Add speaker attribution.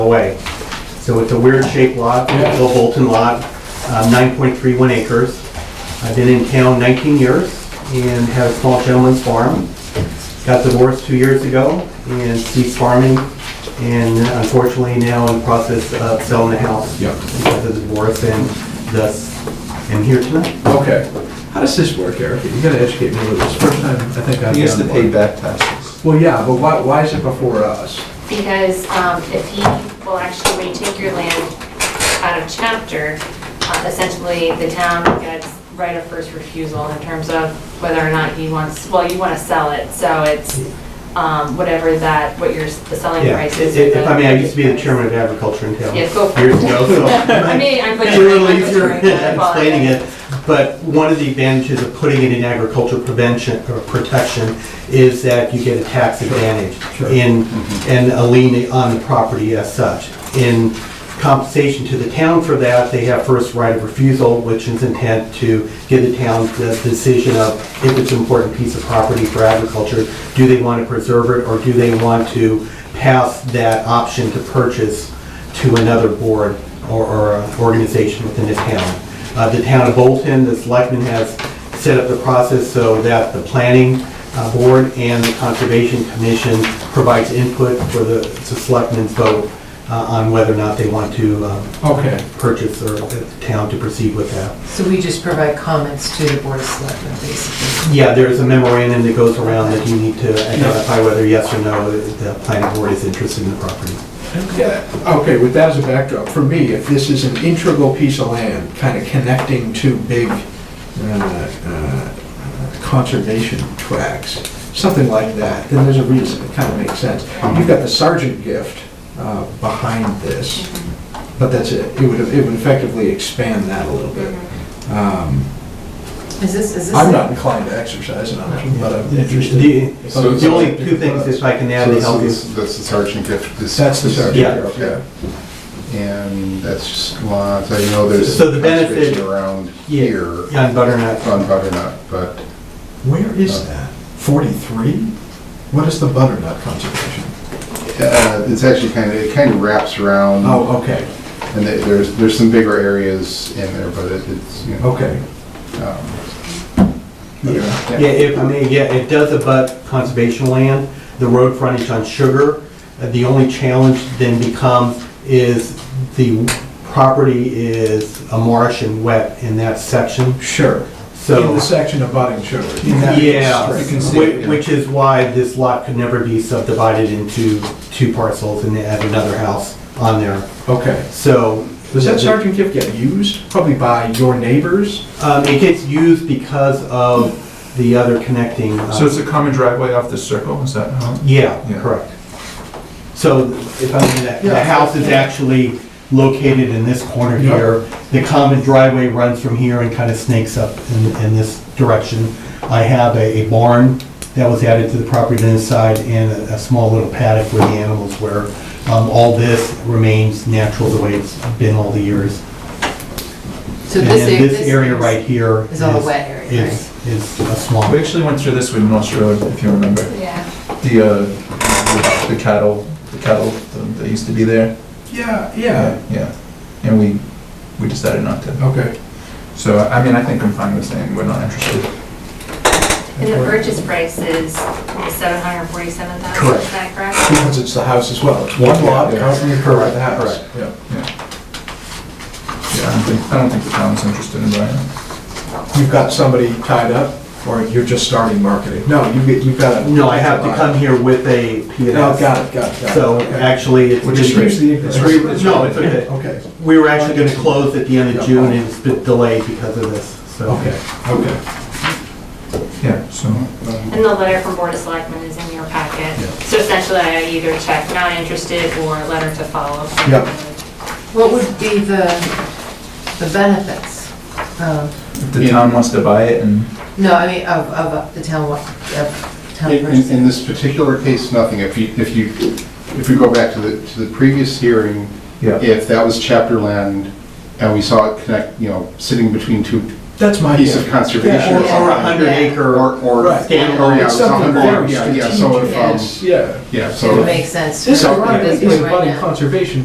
Speaker 1: away. So it's a weird shaped lot, it's a Bolton lot, uh, 9.31 acres. I've been in town 19 years and had a small gentleman's farm. Got divorced two years ago and ceased farming and unfortunately now in the process of selling the house.
Speaker 2: Yep.
Speaker 1: Because of the divorce and thus am here tonight.
Speaker 2: Okay. How does this work, Eric? You gotta educate me a little. It's the first time I think I've.
Speaker 3: He has to
Speaker 2: done
Speaker 3: pay
Speaker 2: one.
Speaker 3: back taxes.
Speaker 2: Well, yeah, but why, why is it before us?
Speaker 4: Because um, if he will actually retake your land out of chapter, uh, essentially the town gets right of first refusal in terms of whether or not he wants, well, you want to sell it, so it's um, whatever that, what your, the selling
Speaker 1: Yeah,
Speaker 4: price is.
Speaker 1: if if I may, I used to be the chairman of agriculture in town.
Speaker 4: Yeah, go for it.
Speaker 1: Years ago, so.
Speaker 4: I mean, I'm
Speaker 1: It's
Speaker 4: butchering.
Speaker 1: a little
Speaker 4: I'm
Speaker 1: easier
Speaker 4: butchering, I
Speaker 1: explaining
Speaker 4: apologize.
Speaker 1: it, but one of the advantages of putting it in agricultural prevention or protection is that you get a tax advantage
Speaker 2: sure.
Speaker 1: in, and a lien on the property as such. In compensation to the town for that, they have first right of refusal, which is intent to give the town the decision of if it's an important piece of property for agriculture, do they want to preserve it or do they want to pass that option to purchase to another board or, or uh, organization within the town. Uh, the town of Bolton, the selectmen has set up the process so that the planning uh, board and the conservation commission provides input for the, the selectmen's vote uh, on whether or not they want to um,
Speaker 2: Okay.
Speaker 1: purchase or the town to proceed with that.
Speaker 5: So we just provide comments to the Board of Selectmen, basically.
Speaker 1: Yeah, there's a memorandum that goes around that you need to identify whether yes or no the planning board is interested in the property.
Speaker 2: Yeah, Okay, with that as a backdrop, for me, if this is an integral piece of land, kind of connecting two big uh, uh, conservation tracks, something like that, then there's a reason, it kind of makes sense. You've got the sergeant gift uh, behind this, but that's it. It would, it would effectively expand that a little bit.
Speaker 4: Mm-hmm.
Speaker 2: Um,
Speaker 5: Is this, is this?
Speaker 2: I'm not inclined to exercise it on it, but I'm interested.
Speaker 1: The the only two things, if I can add, to
Speaker 3: So
Speaker 1: help you.
Speaker 3: this is- That's the sergeant gift. This-
Speaker 2: That's the
Speaker 3: this-
Speaker 2: sergeant.
Speaker 3: Yeah. And that's just, well, so you know, there's
Speaker 1: So the benefit-
Speaker 3: conservation around
Speaker 1: Yeah,
Speaker 3: here
Speaker 1: yeah, on butternut.
Speaker 3: on butternut, but
Speaker 2: Where is that? 43? What is the butternut conservation?
Speaker 3: uh, it's actually kind of, it kind of wraps around.
Speaker 2: Oh, okay,
Speaker 3: And there- there's, there's some bigger areas in there, but it- it's, you know.
Speaker 2: okay.
Speaker 3: um,
Speaker 2: Yeah.
Speaker 1: Yeah, if I may, yeah, it does abut conservation land, the road frontage on Sugar. Uh, The only challenge then becomes is the property is a marsh and wet in that section,
Speaker 2: Sure.
Speaker 1: so.
Speaker 2: In the section of budding sugar.
Speaker 1: Yeah,
Speaker 3: You can see it,
Speaker 1: whi-
Speaker 3: yeah.
Speaker 1: which is why this lot could never be subdivided into two parcels and add another house on there,
Speaker 2: Okay.
Speaker 1: so.
Speaker 2: Does that
Speaker 1: the-
Speaker 2: sergeant gift get used? Probably by your neighbors?
Speaker 1: Um, it gets used because of the other connecting. uh,
Speaker 6: So it's a common driveway off the circle, is that how?
Speaker 1: Yeah,
Speaker 6: Yeah.
Speaker 1: correct. So if I mean, that- the
Speaker 2: Yeah.
Speaker 1: house is actually located in this corner
Speaker 2: Yeah.
Speaker 1: here. The common driveway runs from here and kind of snakes up in, in this direction. I have a a barn that was added to the property on this side and a a small little paddock where the animals were. Um, All this remains natural the way it's been all the years.
Speaker 5: So
Speaker 1: And
Speaker 5: this.
Speaker 1: then this area right here.
Speaker 5: is all a wet area, right?
Speaker 1: Is, is a swamp.
Speaker 6: We actually went through this with North Road, if you remember.
Speaker 4: Yeah,
Speaker 6: The, uh, the cattle, the cattle that used to be there.
Speaker 2: Yeah,
Speaker 6: Yeah, and we, we decided not to.
Speaker 2: Okay.
Speaker 6: So, I mean, I think I'm fine with saying we're not interested.
Speaker 4: and the purchase price is seven hundred forty-seven thousand,
Speaker 2: Correct.
Speaker 4: is that correct?
Speaker 2: Because it's the house as well. It's one lot,
Speaker 6: Yeah.
Speaker 2: covering the curve of the house.
Speaker 1: Correct.
Speaker 2: Yeah.
Speaker 6: Yeah, I don't think, I don't think the town's interested in buying it.
Speaker 2: You've got somebody tied up, or you're just starting marketing? No, you've, got- you've got a...
Speaker 1: No, I have to come here with a P
Speaker 2: No,
Speaker 1: and S.
Speaker 2: Oh, got it, got it, got it.
Speaker 1: So
Speaker 2: Okay.
Speaker 1: actually, it's.
Speaker 2: We'll just use the
Speaker 1: it's
Speaker 2: ignorance.
Speaker 1: re- No, it's okay.
Speaker 2: Okay,
Speaker 1: We were actually gonna close at the end of June and it's been delayed because of this, so.
Speaker 2: okay, okay.
Speaker 6: Yeah, so,
Speaker 4: And the letter from Board of Selectmen is in your packet. So essentially, I either check not interested or letter to follow.
Speaker 2: Yep.
Speaker 5: What would be the, the benefits of,
Speaker 6: if the town wants to buy it and,
Speaker 5: no, I mean, of, of uh, the town, wa- of town
Speaker 3: In, in- in
Speaker 5: person?
Speaker 3: this particular case, nothing. If you, if you, if we go back to the, to the previous hearing,
Speaker 6: yeah.
Speaker 3: if that was chapter land and we saw it connect, you know, sitting between two
Speaker 2: That's my...
Speaker 3: pieces of
Speaker 1: Or
Speaker 3: conservation.
Speaker 1: or a hundred acre
Speaker 3: Or,
Speaker 1: or
Speaker 3: or,
Speaker 2: Right.
Speaker 3: or, yeah,
Speaker 1: standalone.
Speaker 2: It's something
Speaker 3: something,
Speaker 2: very
Speaker 3: yeah, yeah, so if, um,
Speaker 5: strategic.
Speaker 2: Yeah.
Speaker 3: yeah,
Speaker 5: It
Speaker 3: so.
Speaker 5: would make sense.
Speaker 2: This
Speaker 5: for
Speaker 2: ironically
Speaker 5: this
Speaker 2: is
Speaker 5: one right
Speaker 2: about
Speaker 5: now.
Speaker 2: conservation